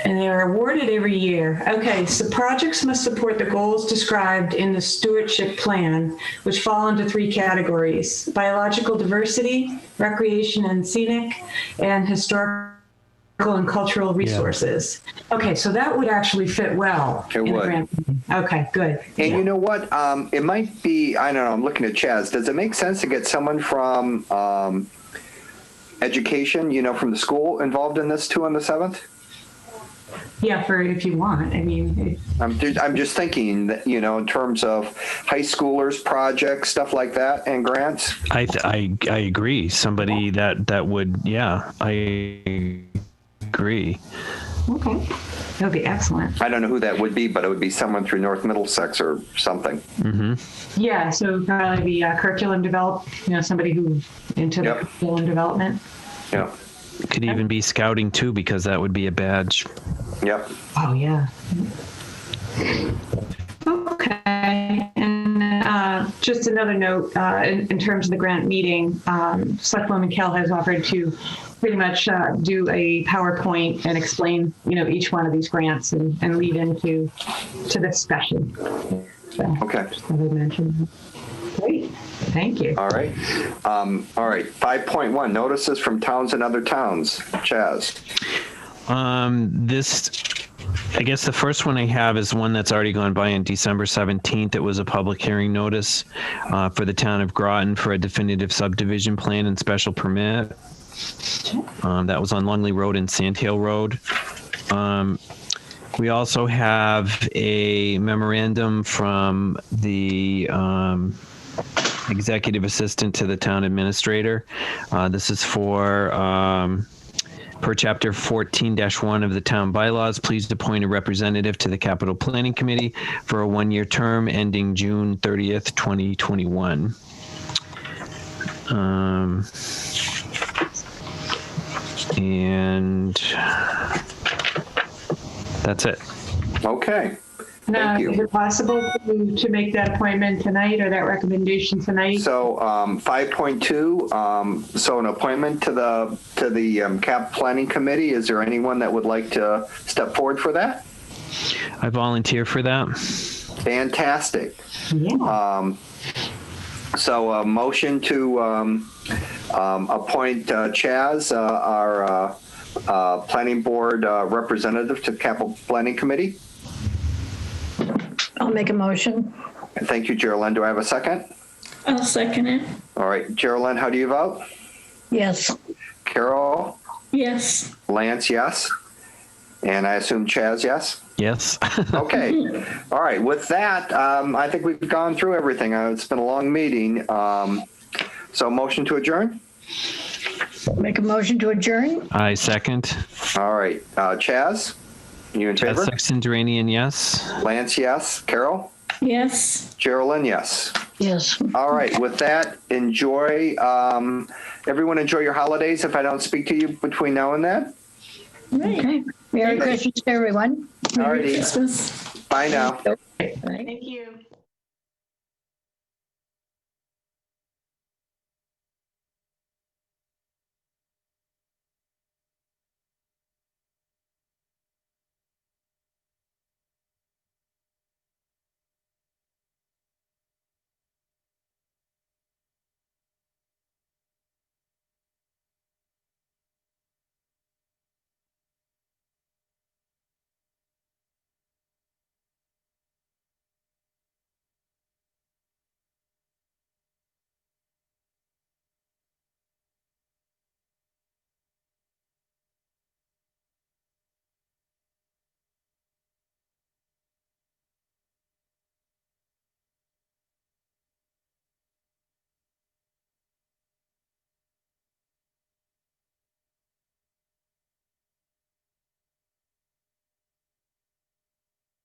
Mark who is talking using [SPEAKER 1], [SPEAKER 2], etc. [SPEAKER 1] And they are awarded every year. Okay, so projects must support the goals described in the stewardship plan, which fall into three categories biological diversity, recreation and scenic, and historical and cultural resources. Okay, so that would actually fit well.
[SPEAKER 2] It
[SPEAKER 1] in the
[SPEAKER 2] would.
[SPEAKER 1] grant. Okay, good.
[SPEAKER 2] And you know what? Um, it might be, I don't know, I'm looking at Chaz. Does it make sense to get someone from um, education, you know, from the school involved in this too on the 7th?
[SPEAKER 1] Yeah, for if you want. I mean,
[SPEAKER 2] I'm, ju- I'm just thinking that, you know, in terms of high schoolers, projects, stuff like that, and grants.
[SPEAKER 3] I, th- I I agree. Somebody that that would yeah I agree.
[SPEAKER 1] okay, that would be excellent.
[SPEAKER 2] I don't know who that would be, but it would be someone through North Middlesex or something.
[SPEAKER 1] Yeah, so probably be uh, curriculum develop, you know, somebody who into the
[SPEAKER 2] Yep.
[SPEAKER 1] curriculum development.
[SPEAKER 2] Yeah.
[SPEAKER 3] Could even be scouting too because that would be a badge.
[SPEAKER 2] Yep.
[SPEAKER 1] Oh, yeah. Okay, and uh, just another note, uh, in in terms of the grant meeting, um, Selectwoman Kell has offered to pretty much uh, do a PowerPoint and explain, you know, each one of these grants and and lead into to discussion. So,
[SPEAKER 2] Okay.
[SPEAKER 1] just thought I'd mention that. Great, thank you.
[SPEAKER 2] All right. Um, all right. 5.1 notices from towns and other towns. Chaz.
[SPEAKER 3] Um, this, I guess the first one I have is one that's already gone by on December 17th. It was a public hearing notice uh, for the town of Groton for a definitive subdivision plan and special permit. Um, that was on Lungley Road and Sand Hill Road. Um, we also have a memorandum from the um, executive assistant to the town administrator. Uh, this is for um, Per chapter 14-1 of the town bylaws, please appoint a representative to the capital planning committee for a one-year term ending June 30th, 2021. Um, and that's it.
[SPEAKER 2] Okay.
[SPEAKER 1] Now,
[SPEAKER 2] Thank you.
[SPEAKER 1] is it possible to, to make that appointment tonight or that recommendation tonight?
[SPEAKER 2] So um, 5.2, um, so an appointment to the, to the um, CAP Planning Committee, is there anyone that would like to step forward for that?
[SPEAKER 3] I volunteer for that.
[SPEAKER 2] Fantastic.
[SPEAKER 1] Yeah.
[SPEAKER 2] Um, So a motion to um, um, appoint uh, Chaz, uh, our uh, uh, Planning Board uh, Representative to Capital Planning Committee.
[SPEAKER 4] I'll make a motion.
[SPEAKER 2] And Thank you, Geraldine. Do I have a second?
[SPEAKER 5] I'll second it.
[SPEAKER 2] All right, Geraldine, how do you vote?
[SPEAKER 4] Yes,
[SPEAKER 2] Carol,
[SPEAKER 5] Yes.
[SPEAKER 2] Lance, yes? And I assume Chaz, yes?
[SPEAKER 3] Yes.
[SPEAKER 2] Okay. All right. With that, um, I think we've gone through everything. Uh, It's been a long meeting. Um, so motion to adjourn?
[SPEAKER 4] make a motion to adjourn.
[SPEAKER 3] I second.
[SPEAKER 2] All right. Uh, Chaz, you in
[SPEAKER 3] Chad
[SPEAKER 2] favor?
[SPEAKER 3] Sexton Duranian, yes.
[SPEAKER 2] Lance, yes. Carol?
[SPEAKER 5] Yes.
[SPEAKER 2] Geraldine, yes.
[SPEAKER 4] Yes.
[SPEAKER 2] All right. With that, enjoy. Um, everyone enjoy your holidays if I don't speak to you between now and then.
[SPEAKER 4] Okay. Merry Christmas, everyone.
[SPEAKER 2] All righty.
[SPEAKER 5] Christmas.
[SPEAKER 2] Bye now.
[SPEAKER 1] Thank you.